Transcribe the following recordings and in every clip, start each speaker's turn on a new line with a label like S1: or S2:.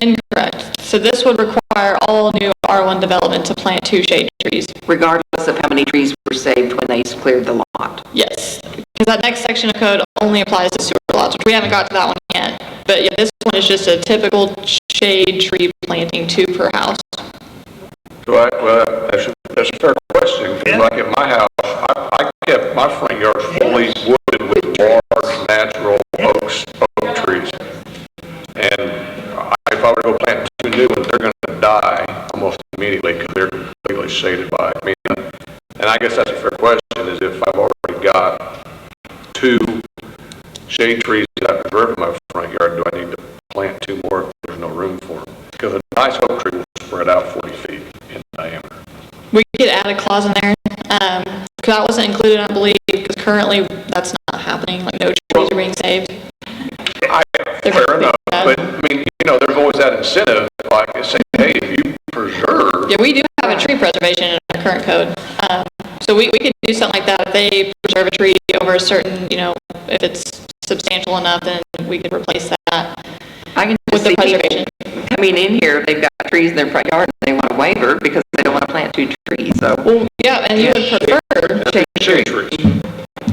S1: Incorrect. So this would require all new R1 development to plant two shade trees.
S2: regardless of how many trees were saved when they cleared the lot.
S1: Yes, because that next section of code only applies to sewer lots, which we haven't got to that one yet. But yeah, this one is just a typical shade tree planting, two per house.
S3: So I, well, that's, a- that's a fair question, 'cause like at my house, I, I kept my front yard fully wooded with large natural oaks, oak trees. And I- if I were to go plant two new ones, they're gonna die almost immediately, because they're completely shaded by, I mean, and I guess that's a fair question, is if I've already got two shade trees that I've grown in my front yard, do I need to plant two more if there's no room for them? Because a nice oak tree will spread out 40 feet in diameter.
S1: We could add a clause in there, um, 'cause that wasn't included, I believe, because currently that's not happening, like no trees are being saved.
S3: I, fair enough, but, I mean, you know, there's always that incentive, like, to say, hey, if you preserve,
S1: Yeah, we do have a tree preservation in our current code. Um, So we, we could do something like that. If they preserve a tree over a certain, you know, if it's substantial enough, then we could replace that.
S2: I can
S1: With
S2: just
S1: the
S2: see people
S1: preservation.
S2: coming in here, they've got trees in their front yard, and they want a waiver because they don't want to plant two trees, so.
S1: Well, yeah, and you would prefer,
S3: shade trees.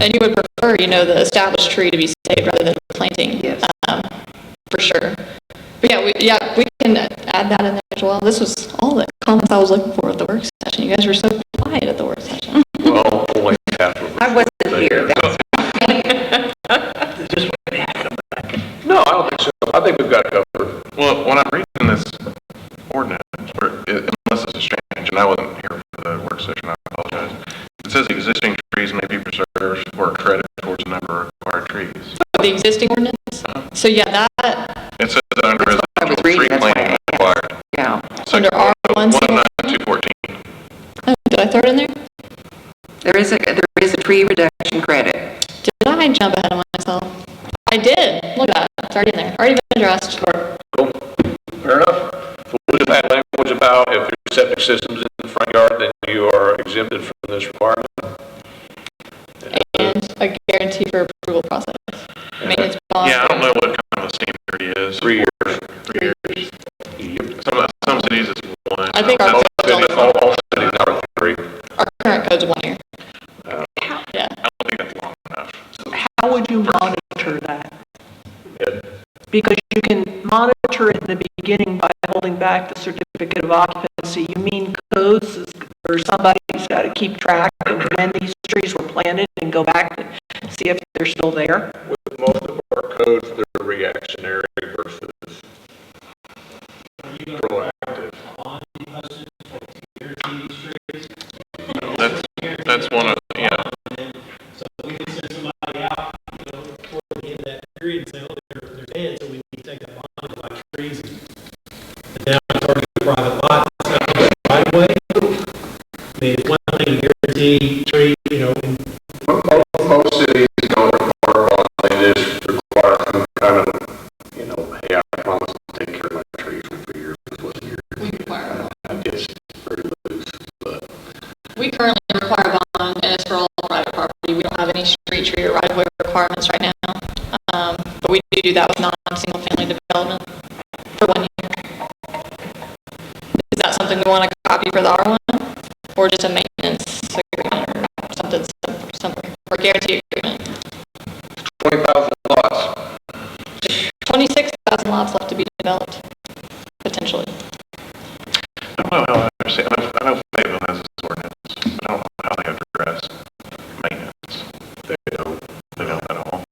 S1: and you would prefer, you know, the established tree to be saved rather than planting.
S2: Yes.
S1: um, For sure. But yeah, we, yeah, we can add that in there as well. This was all the comments I was looking for at the work session. You guys were so quiet at the work session.
S3: Well, only half of
S2: I wasn't here, that's,
S3: No, I don't think so. I think we've got it covered.
S4: Well, when I'm reading this ordinance, or it- unless it's a change, and I wasn't here for the work session, I apologize. It says existing trees may be preserved for credit towards the number of required trees.
S1: The existing ordinance. So yeah, that,
S4: It says that under
S2: I was
S4: residential
S2: reading,
S4: tree
S2: that's why I
S4: planting
S2: asked.
S4: required.
S2: yeah.
S1: under
S4: Section
S1: R1. single-
S4: 19214.
S1: Oh, Did I throw it in there?
S2: There is a, there is a tree reduction credit.
S1: Did I jump ahead of myself? I did. Look at that. It's already in there. Already been addressed.
S3: Cool. Fair enough. So We'll just add language about if your septic system's in the front yard, then you are exempted from this requirement.
S1: And a guarantee for approval process. Maintenance bond.
S4: Yeah, I don't know what kind of a standard is.
S3: Three years.
S4: Three years. Some, some cities it's one.
S1: I think our
S4: That's
S1: code's
S4: cities.
S1: only
S3: All, all cities now are three.
S1: Our current code's one year.
S4: Oh.
S1: Yeah.
S4: I don't think that's long enough.
S5: how would you monitor that? Because you can monitor it in the beginning by holding back the certificate of occupancy. You mean codes is- or somebody's got to keep track of when these trees were planted and go back and see if they're still there?
S3: Most of our codes, they're reactionary versus proactive.
S4: That's, that's one of, yeah.
S6: period and say, oh, they're, they're dead, so we need to take that bond and buy trees. And now it's already a private lot, it's not a right away. I mean, it's one thing to guarantee trees, you know, and
S3: Most, most cities don't require bonds, they just require some kind of, you know, hey, I promise to take care of my trees for years, plus years. We require. I guess pretty loose, but.
S1: We currently require a bond and it's for all private property. We don't have any street tree or right of way requirements right now. Um, but we do do that with non-single family development for one year. Is that something we want to copy for the R1? Or just a maintenance agreement or something, something, or guarantee agreement?
S3: Twenty thousand lots,
S1: 26,000 lots left to be developed, potentially.
S4: I don't know how I understand, I know- I know Fayetteville has this ordinance, but I don't know how they address maintenance. They don't. They don't at all.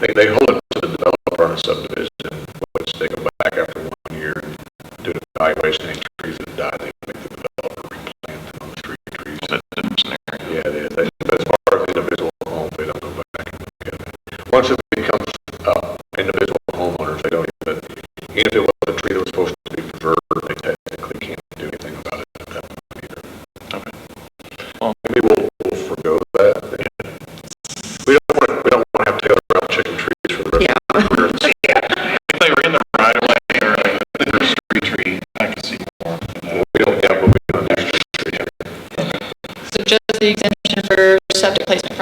S3: they, they hold it to the developer on a subdivision, which they go back after one year and do an evaluation, any trees that die, they make the developer replant those three trees.
S4: That's a different scenario.
S3: Yeah, they, they, that's part of the individual home, they don't go back and look at it. Once it becomes, uh, individual homeowners, they don't even, even if it was a tree that was supposed to be preserved, they technically can't do anything about it at that point either. Well, maybe we'll, we'll forego that. We don't want to, we don't want to have Taylor out chicken trees for the rest of the year.
S4: If they were in the right of way or if they were a street tree, I could see more.
S3: We don't, yeah, but we don't have to.
S1: So just the exemption for septic placement